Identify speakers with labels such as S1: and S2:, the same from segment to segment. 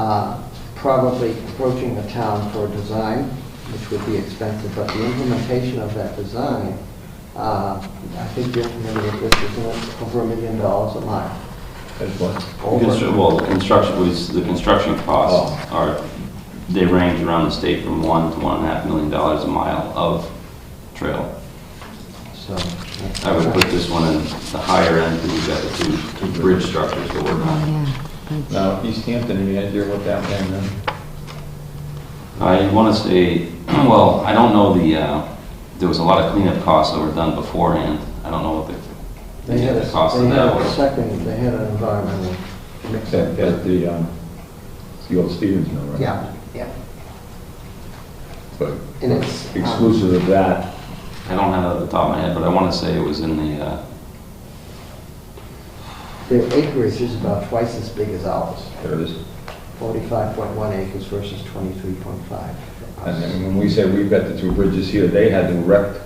S1: uh, probably approaching the town for a design, which would be expensive, but the implementation of that design, uh, I think you're familiar with this, isn't it, over a million dollars a mile?
S2: That's what?
S1: Over.
S3: Constru- uh, Well, the construction was, the construction costs
S1: Oh.
S3: are, they range around the state from one to one and a half million dollars a mile of trail.
S1: So,
S3: I would put this one in the higher end, because we've got the two bridge structures that we're on.
S4: Oh, yeah.
S2: Now, East Hampton, any idea what that one, uh,
S3: I want to say, well, I don't know the, uh, there was a lot of cleanup costs that were done beforehand. I don't know what the,
S1: They had a,
S3: the cost
S1: they
S3: of
S1: had
S3: that
S1: a
S3: was.
S1: second, they had an environmental mix
S2: that, that the, um, the old Stevens Mill, right?
S1: Yeah, yeah.
S2: But
S1: And it's, um,
S2: exclusive of that,
S3: I don't have it at the top of my head, but I want to say it was in the, uh,
S1: Their acreage is about twice as big as ours,
S2: there it is.
S1: 45.1 acres versus 23.5. for
S2: And
S1: us.
S2: then when we say we've got the two bridges here, they had to erect,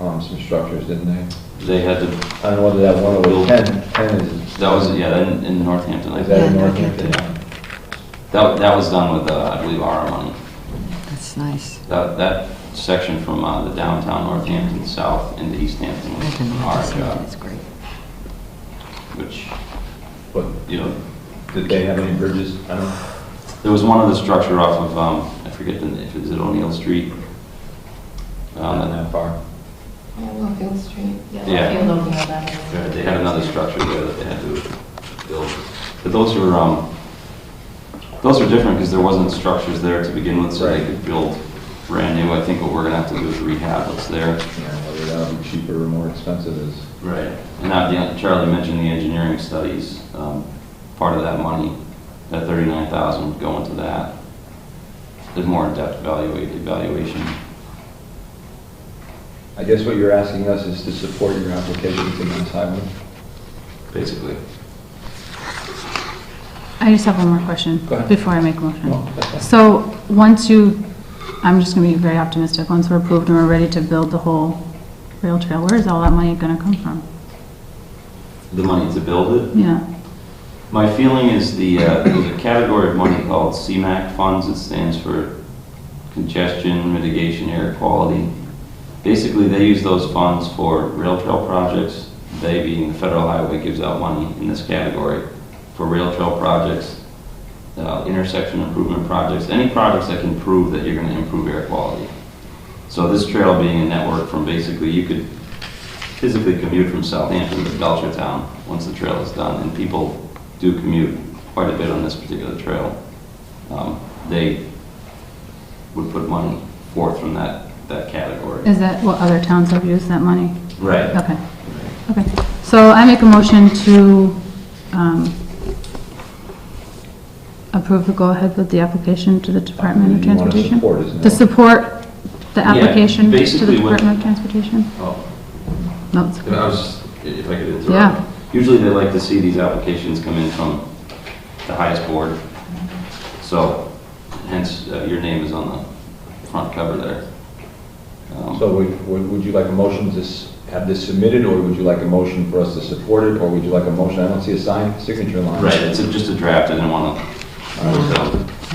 S2: um, some structures, didn't they?
S3: they had to,
S2: I don't know whether that one was ten, ten is.
S3: that was, yeah, in, in Northampton, I
S2: Is
S3: think.
S2: that in
S4: Yeah,
S2: Northampton?
S3: That, that was done with, uh, I believe, our money.
S4: That's nice.
S3: That, that section from uh, the downtown Northampton south into East Hampton
S4: I can
S3: was our
S2: uh,
S4: notice that.
S3: job,
S4: It's great.
S3: which,
S2: But
S3: you know,
S2: did they have any bridges? I don't know.
S3: there was one other structure off of, um, I forget the, if it was at O'Neill Street.
S2: Not
S3: Um,
S2: that far.
S5: Yeah, Longfield Street.
S3: Yeah.
S5: Longfield, Longfield Avenue.
S3: They had another structure there that they had to build. But those are, um, those are different because there wasn't structures there to begin with, so they
S2: Right.
S3: could build brand new. I think what we're gonna have to do is rehab what's there.
S2: Yeah, whether that would be cheaper or more expensive is.
S3: Right. And now, the- Charlie mentioned the engineering studies. Um, Part of that money, that 39,000 would go into that. There's more in-depth evaluate- evaluation.
S2: I guess what you're asking us is to support your application to Mass Highway?
S3: Basically.
S6: I just have one more question
S2: Go ahead.
S6: before I make a
S2: No,
S6: motion.
S2: that's fine.
S6: So, once you, I'm just going to be very optimistic, once we're approved and we're ready to build the whole rail trail, where is all that money going to come from?
S3: The money to build it.
S6: Yeah,
S3: My feeling is the, uh, there's a category of money called CMAC funds. It stands for Congestion Mitigation Air Quality. Basically, they use those funds for rail trail projects. They, being the federal highway, gives out money in this category for rail trail projects, uh, intersection improvement projects, any projects that can prove that you're going to improve air quality. So this trail being a network from basically, you could physically commute from Southampton to Belchertown once the trail is done, and people do commute quite a bit on this particular trail. Um, They would put money forth from that, that category.
S6: is that what other towns have used that money?
S3: Right.
S6: Okay, okay. So I make a motion to um, approve the go-ahead with the application to the Department of
S2: You wanna
S6: Transportation?
S2: support, isn't it?
S6: To support the
S3: Yeah,
S6: application to the
S3: basically what-
S6: Department of Transportation?
S3: Oh,
S6: No, it's-
S3: I was, if I could
S6: Yeah.
S3: interrupt. Usually they like to see these applications come in from the highest board. So hence, uh, your name is on the front cover there. Um,
S2: So would, would would you like a motion to s- have this submitted, or would you like a motion for us to support it, or would you like a motion, I don't see a sign, signature line.
S3: Right, it's a- just a draft, I didn't want to.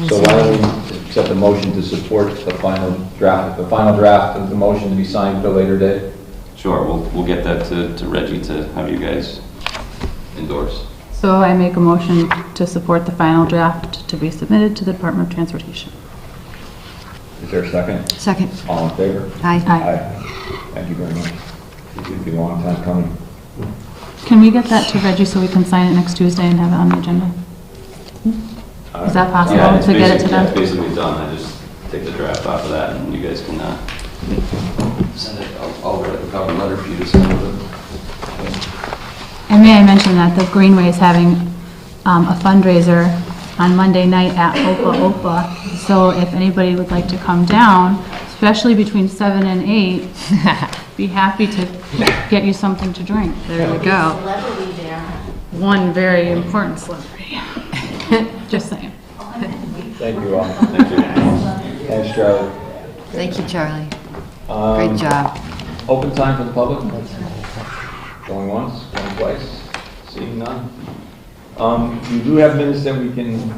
S2: So why don't we accept the motion to support the final draft, the final draft of the motion to be signed for later date?
S3: Sure, we'll, we'll get that to, to Reggie to have you guys endorse.
S6: So I make a motion to support the final draft to be submitted to the Department of Transportation.
S2: Is there a second?
S4: Second.
S2: All in favor?
S4: Aye.
S6: Aye.
S2: Thank you very much. It's been a long time coming.
S6: Can we get that to Reggie so we can sign it next Tuesday and have it on the agenda? Is that
S3: Yeah,
S6: possible
S3: it's
S6: to get it to
S3: basically- yeah, it's
S6: them?
S3: basically done, I just take the draft off of that, and you guys can, uh, send it, I'll- I'll write a cover letter for you to send with it.
S6: And may I mention that the Greenway is having um, a fundraiser on Monday night at Opa Opa. So if anybody would like to come down, especially between seven and eight, be happy to get you something to drink.
S4: There we go.
S5: Celebrity there.
S6: One very important celebrity. Just saying.
S2: Thank you all. Thanks, Charlie.
S4: Thank you, Charlie.
S2: Um,
S4: Great job.
S2: Open time for the public? Going once, going twice, seeing none. Um, You do have minutes that we can